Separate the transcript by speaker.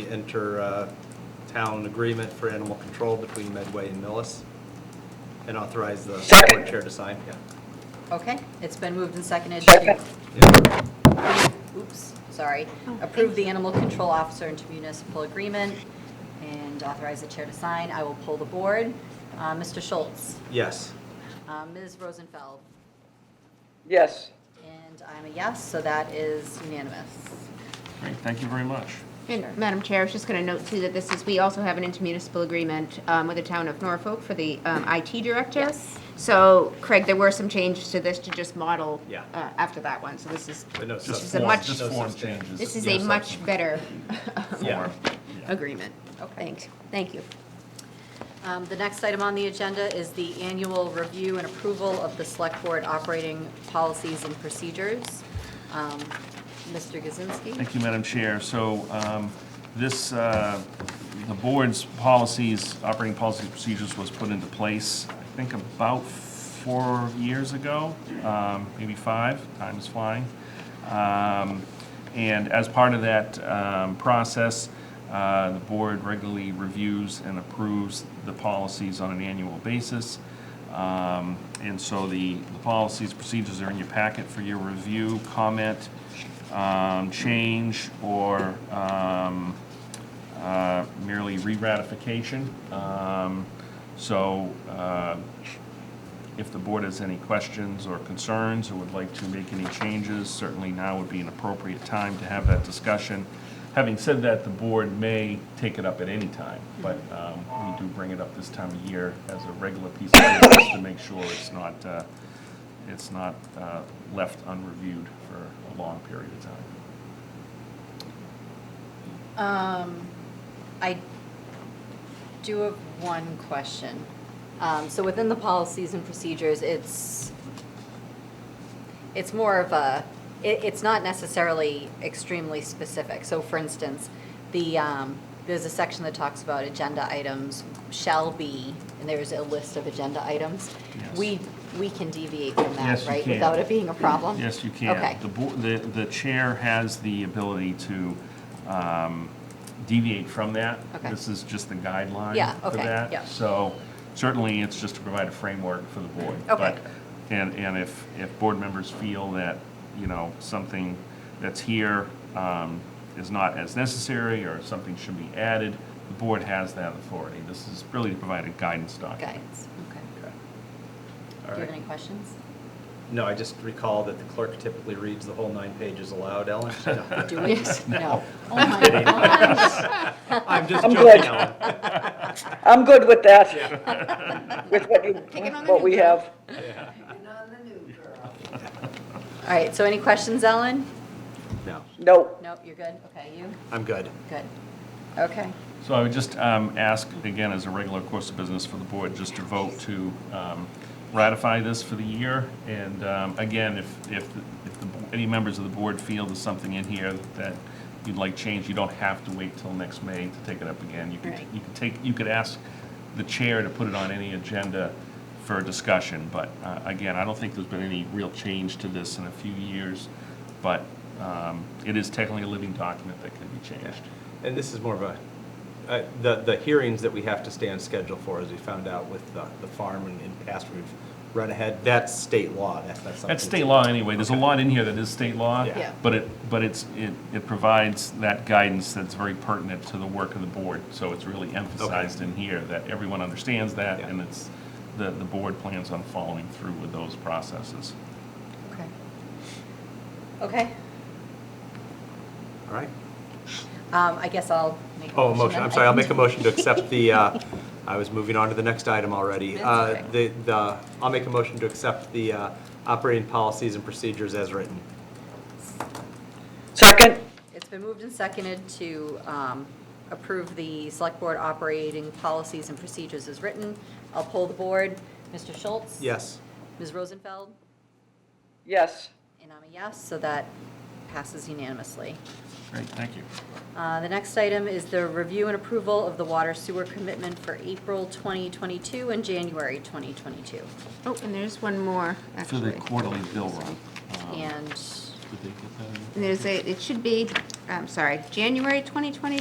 Speaker 1: the inter-town uh, agreement for animal control between Medway and Millis, and authorize the
Speaker 2: Second.
Speaker 1: board chair to sign. Yeah.
Speaker 3: Okay, it's been moved and seconded to,
Speaker 2: Second.
Speaker 1: Yeah.
Speaker 3: oops, sorry, approve the animal control officer intermunicipal agreement and authorize the chair to sign. I will pull the board. Uh, Mr. Schultz,
Speaker 1: Yes.
Speaker 3: uh, Ms. Rosenfeld,
Speaker 2: Yes.
Speaker 3: and I'm a yes, so that is unanimous.
Speaker 4: Great, thank you very much.
Speaker 5: And Madam Chair, I was just going to note too that this is, we also have an intermunicipal agreement um, with the town of Norfolk for the um, IT director.
Speaker 3: Yes.
Speaker 5: So Craig, there were some changes to this to just model
Speaker 1: Yeah.
Speaker 5: uh, after that one. So this is,
Speaker 1: But no
Speaker 5: this is
Speaker 1: substance.
Speaker 5: a much,
Speaker 1: Just form changes.
Speaker 5: this is a much better
Speaker 1: Yeah.
Speaker 5: agreement. Thanks, thank you.
Speaker 3: Um, The next item on the agenda is the annual review and approval of the select board operating policies and procedures. Um, Mr. Kaczynski?
Speaker 4: Thank you, Madam Chair. So um, this, uh, the board's policies, operating policies and procedures was put into place, I think about four years ago, um, maybe five, time is flying. Um, And as part of that um, process, uh, the board regularly reviews and approves the policies on an annual basis. Um, And so the the policies, procedures are in your packet for your review, comment, um, change or um, uh, merely re-ratification. Um, So uh, if the board has any questions or concerns or would like to make any changes, certainly now would be an appropriate time to have that discussion. Having said that, the board may take it up at any time, but um, we do bring it up this time of year as a regular piece of business to make sure it's not, uh, it's not uh, left unreviewed for a long period of time.
Speaker 3: Um, I do have one question. Um, so within the policies and procedures, it's, it's more of a, it, it's not necessarily extremely specific. So for instance, the, um, there's a section that talks about agenda items shall be, and there's a list of agenda items.
Speaker 4: Yes.
Speaker 3: We, we can deviate from
Speaker 4: Yes,
Speaker 3: that,
Speaker 4: you
Speaker 3: right?
Speaker 4: can.
Speaker 3: Without it being a problem?
Speaker 4: Yes, you can.
Speaker 3: Okay.
Speaker 4: The bo- The, the chair has the ability to um, deviate from that.
Speaker 3: Okay.
Speaker 4: This is just the guideline
Speaker 3: Yeah,
Speaker 4: for
Speaker 3: okay,
Speaker 4: that.
Speaker 3: yeah.
Speaker 4: So certainly, it's just to provide a framework for the board.
Speaker 3: Okay.
Speaker 4: But- And, and if, if board members feel that, you know, something that's here um, is not as necessary, or something should be added, the board has that authority. This is really to provide a guidance document.
Speaker 3: Guidance, okay.
Speaker 1: Okay. All
Speaker 3: Do you have
Speaker 1: right.
Speaker 3: any questions?
Speaker 1: No, I just recall that the clerk typically reads the whole nine pages aloud, Ellen. She don't.
Speaker 3: Do we? No. Oh my
Speaker 1: kidding.
Speaker 3: gosh.
Speaker 1: I'm just
Speaker 2: I'm
Speaker 1: joking,
Speaker 2: good.
Speaker 1: Ellen.
Speaker 2: I'm good with that, with what you,
Speaker 5: Picking on the
Speaker 2: what we
Speaker 5: new
Speaker 2: have.
Speaker 3: All right, so any questions, Ellen?
Speaker 1: No,
Speaker 2: No,
Speaker 3: Nope, you're good? Okay, you?
Speaker 1: I'm good.
Speaker 3: Good. Okay.
Speaker 4: So I would just um, ask, again, as a regular course of business for the board, just to vote to um, ratify this for the year. And um, again, if, if, if the- any members of the board feel there's something in here that you'd like changed, you don't have to wait till next May to take it up again. You could,
Speaker 3: Right.
Speaker 4: you could take, you could ask the chair to put it on any agenda for discussion. But uh, again, I don't think there's been any real change to this in a few years. But um, it is technically a living document that can be changed.
Speaker 1: And this is more of a, uh, the, the hearings that we have to stay on schedule for, as we found out with the, the farm and in past, we've run ahead, that's state law, that's not something.
Speaker 4: That's state law anyway, there's a lot in here that is state law.
Speaker 1: Yeah.
Speaker 3: Yeah.
Speaker 4: But it, but it's, it, it provides that guidance that's very pertinent to the work of the board. So it's really emphasized in here that everyone understands that
Speaker 1: Yeah.
Speaker 4: and it's, the, the board plans on following through with those processes.
Speaker 3: Okay. Okay.
Speaker 1: All right.
Speaker 3: Um, I guess I'll make a motion.
Speaker 1: Oh, motion,
Speaker 3: then.
Speaker 1: I'm sorry, I'll
Speaker 3: I
Speaker 1: make a
Speaker 3: can-
Speaker 1: motion to accept the, uh, I was moving on to the next item already.
Speaker 3: That's
Speaker 1: Uh, The,
Speaker 3: okay.
Speaker 1: the, I'll make a motion to accept the uh, operating policies and procedures as written.
Speaker 2: second,
Speaker 3: It's been moved and seconded to um, approve the Select Board operating policies and procedures as written. I'll pull the board. Mr. Schultz?
Speaker 1: Yes.
Speaker 3: Ms. Rosenfeld?
Speaker 2: yes.
Speaker 3: And I'm a yes, so that passes unanimously.
Speaker 4: Great, thank you.
Speaker 3: Uh, The next item is the review and approval of the water sewer commitment for April 2022 and January 2022.
Speaker 5: Oh, and there's one more,
Speaker 4: For
Speaker 5: actually.
Speaker 4: the quarterly bill run.
Speaker 3: And
Speaker 4: Did they get that?
Speaker 5: And There's a, it should be, I'm sorry, um, January 2022